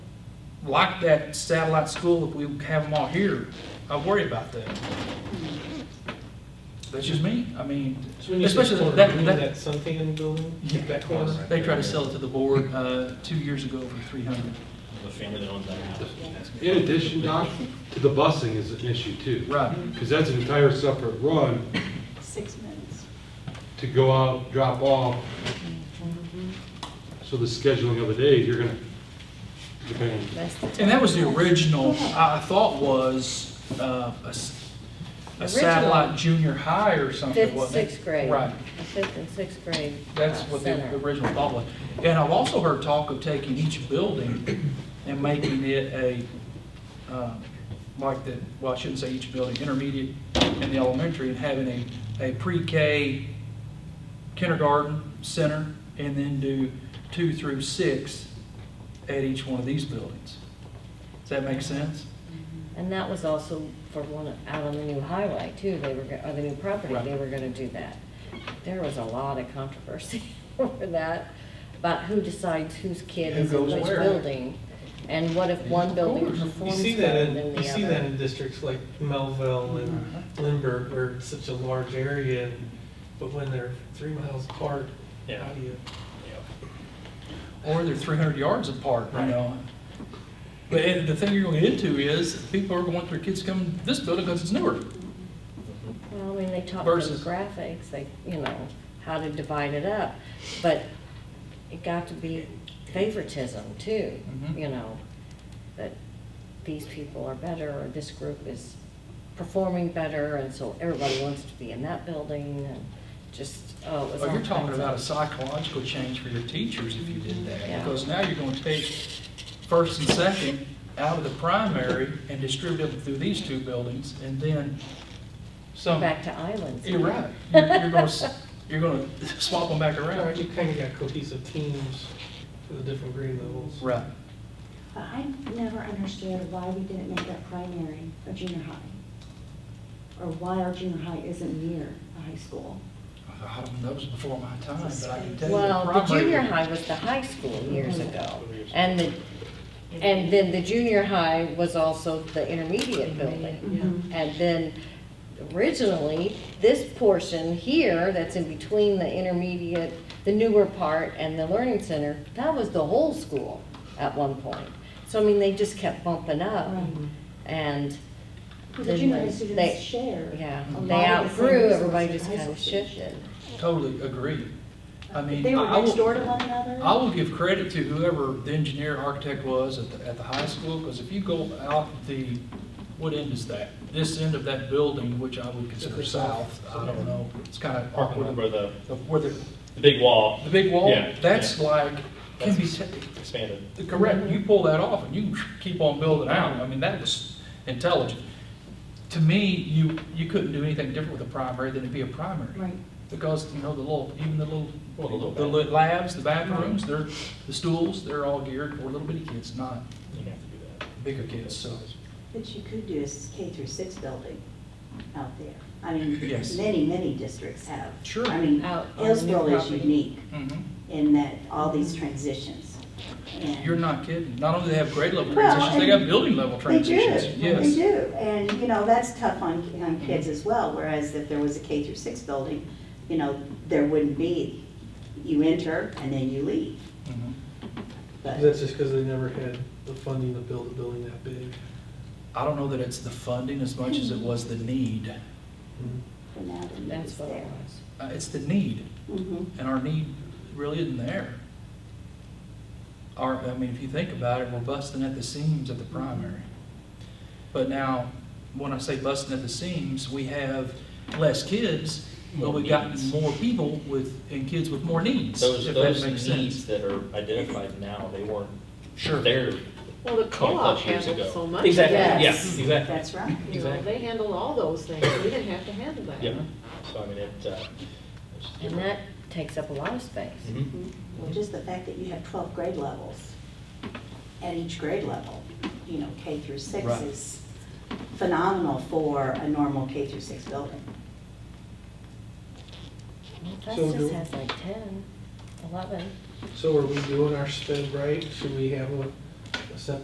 like that satellite school, if we have them all here, I worry about that. That's just me, I mean, So we need especially this that, corner, that. we need that Suntan building, Yeah. that corner. They tried to sell it to the board uh, two years ago for 300. The family that owns that house. In addition, Doc, to the busing is an issue too. Right. Because that's an entire separate run Six minutes. to go out, drop off. So the scheduling of the days, you're gonna, depending, And that was the original, I I thought was uh, a s- a satellite Original. junior high or something, Fifth, wasn't it? sixth grade. Right, The Fifth and sixth grade. that's uh, what the center. the original thought was. And I've also heard talk of taking each building and making it a, um, like the, well, I shouldn't say each building, intermediate and the elementary, and having a, a pre-K kindergarten center, and then do two through six at each one of these buildings. Does that make sense? And that was also for one, of- out on the new highway too, they were, go- or the new property, Right. they were gonna do that. There was a lot of controversy over that, about who decides whose kid Who is in goes which where. building. And what if one building course. You You performs see that, better in than you see the that in other? districts like Melville and Lindbergh, where it's such a large area, and- but when they're three miles apart, Yeah. how do you? or they're 300 yards apart, you Right. know. But it- the thing you're going to get into is people are going to want their kids to come to this building because it's newer. Well, I mean, they taught Versus- demographics, they, you know, how to divide it up, but it got to be favoritism too, Mhm. you know, that these people are better, or this group is performing better, and so everybody wants to be in that building, and just, oh, it was all Well, you're talking kinds about a of- psychological change for your teachers if you did Yeah. that. Because now you're going to take first and second out of the primary and distribute them through these two buildings and then some, Back to islands. you're right. You're going to, you're going to swap them back Right, around. you kind of got cohesive teams for the different grade levels. Right. But I never understood why we didn't make that primary a junior high. Or why our junior high isn't near a high school. I don't know, that was before my time, but I can tell you. Well, the primary- junior high was the high school years Mhm. ago, and the, and then the junior high was also the intermediate building. Mm-hmm. Mhm. And then originally, this portion here that's in between the intermediate, the newer part and the learning center, that was the whole school at one point. So I mean, they just kept bumping up Right. and. Um, Because the then junior high they- students share. Yeah, a lot they of the same outgrew, resources everybody that just high kind of school students shifted. Totally agree. I share. mean. They were I- I next will- door to one another. I will give credit to whoever the engineer architect was at the, at the high school, because if you go out the, what end is that? This end of that building, which I would consider south, I don't know, it's kind of awkward, Where the, where the, the big wall the big wall, Yeah, that's like, can be, expanded. t- correct, you pull that off and you keep on building out, I mean, that was intelligent. To me, you, you couldn't do anything different with a primary than it'd be a primary. Right. Because, you know, the little, even the little, Well, the little the li- labs, the bathrooms, they're, the stools, they're all geared for little bitty kids, not You have to do that. bigger kids, so. What you could do is K through six building out there. I mean, Yes. many, many districts have. Sure. I mean, Out on the new Hillsborough is property. unique Mhm. in that, all these transitions. And You're not kidding. Not only do they have grade level Well, transitions, they and got building level They do, transitions. they Yes. do. And, you know, that's tough on, on kids as well, whereas if there was a K through six building, you know, there wouldn't be, you enter and then you leave. Mhm. But That's just because they never had the funding to build a building that big. I don't know that it's the funding as much as it was the need. for now, the need That's is what it there. was. Uh, It's the need, Mhm. and our need really isn't there. Our, I mean, if you think about it, we're busting at the seams at the primary. But now, when I say busting at the seams, we have less kids, but More we've got needs. more people with, and kids with more needs, Those, if that makes those sense. needs that are identified now, they weren't Sure. there Well, the co-op twenty-plus years handled so ago. much. Exactly, yeah, Yes. exactly. That's right. You know, they handle all those things, we didn't have to handle that. Yeah, so I mean, it, uh. it's just And different. that takes up a lot of space. Mhm. Well, just the fact that you have 12 grade levels at each grade level, you know, K through six Right. is phenomenal for a normal K through six building. Mm-hmm. So do- Festus has like ten, eleven. So are we doing our sped right? Should we have a